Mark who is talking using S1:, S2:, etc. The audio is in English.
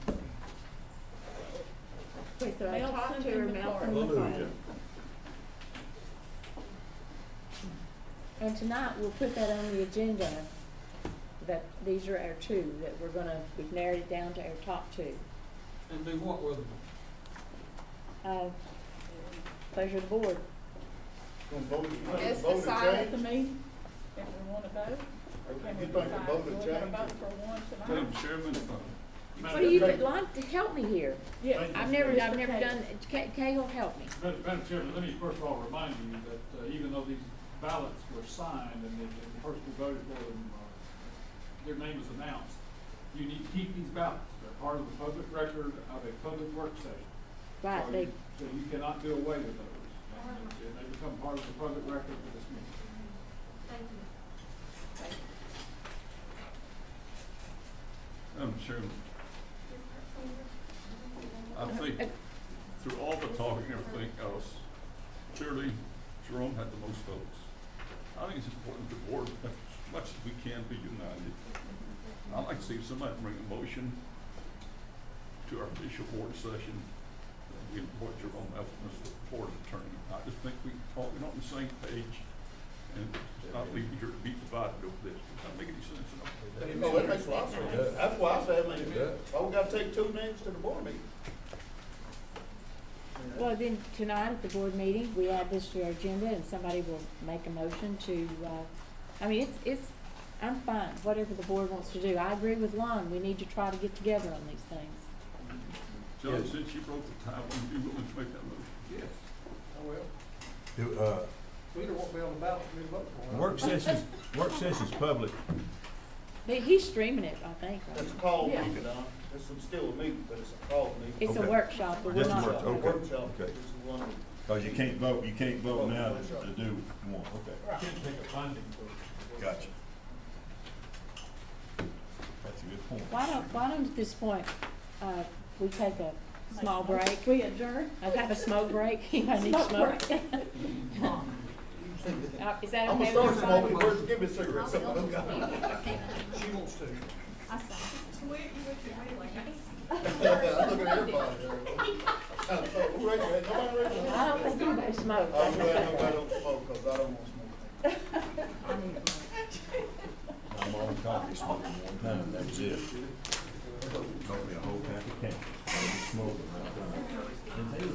S1: Okay, so I
S2: Mail
S1: talked to
S2: sent
S1: her,
S2: in the
S1: mail
S2: car.
S1: from the car.
S3: Hallelujah.
S4: And tonight, we'll put that on the agenda, that these are our two, that we're gonna, we've narrowed it down to our top two.
S5: And do what with them?
S4: Uh, pleasure of the board.
S3: Gonna vote, you think
S2: Let's
S3: the vote will
S2: decide at the
S3: change?
S2: meeting if we wanna vote. Can we
S3: You think the
S2: decide,
S3: vote
S2: we're
S3: will
S2: gonna
S3: change?
S2: vote for one tonight?
S5: chairman's
S6: uh,
S5: vote.
S4: What do you, like, to help me here?
S2: Yeah,
S3: Thank you.
S4: I've never, I've
S2: Mr.
S4: never
S2: Cagle.
S4: done, Ca- Cagle, help me.
S6: Madam Madam Chairman, let me first of all remind you that uh, even though these ballots were signed and the and the person who voted for them, uh, their name was announced, you need to keep these ballots. They're part of the public record of a public work session.
S4: Right,
S6: So
S4: they,
S6: you- So you cannot do away with those. And they- They become part of the public record for this meeting.
S3: I'm sure. I think through all the talking and everything else, surely Jerome had the most votes. I think it's important the board, as much as we can, be united. I'd like to see somebody bring a motion to our official board session. that We appoint Jerome Elton as the board attorney. I just think we talk, we're on the same page and not leave here to be divided over this. Does that make any sense at all?
S7: Oh, that makes a lot of sense.
S3: That's why I said,
S7: It does.
S3: why we gotta take two names to the board meeting?
S4: well, then, tonight at the board meeting, we add this to our agenda, and somebody will make a motion to, uh, I mean, it's, it's, I'm fine, whatever the board wants to do. I agree with Lon, we need to try to get together on these things.
S7: Yes.
S3: John, since you broke the tie, would you be willing to make that motion?
S7: Yes, I will.
S8: Do, uh,
S7: Peter won't be on the ballot for me to vote for.
S8: work sessions, work sessions public,
S4: But he's streaming it, I think, right?
S3: That's a call
S2: Yeah.
S3: meeting, uh, it's some still a meeting, but it's a call meeting.
S4: It's a
S8: Okay.
S4: workshop, but we're
S8: Just a
S4: not.
S8: workshop, okay,
S3: Workshop,
S8: okay.
S3: this is one meeting.
S8: cause you can't vote, you can't vote now to do one, okay,
S6: You can't take a binding vote.
S8: gotcha. That's a good point.
S4: Why don't, why don't at this point, uh, we take a small break?
S2: We adjourn.
S4: I have a smoke break, anybody need
S2: Smoke
S4: smoke? Uh, Is that
S3: I'm
S4: okay
S3: gonna
S4: with
S3: start smoking,
S4: everybody?
S3: first give me a cigarette, somebody
S7: She wants to.
S3: I'm looking at everybody. Uh, so, Who raised their hand? Nobody raised their
S4: I don't
S3: hand?
S4: think anybody smoked.
S3: I'm glad nobody don't smoke, cause I don't want to smoke.
S8: I'm on coffee smoking one time, that was it. Told me a whole pack of cans, I was smoking right there. And they were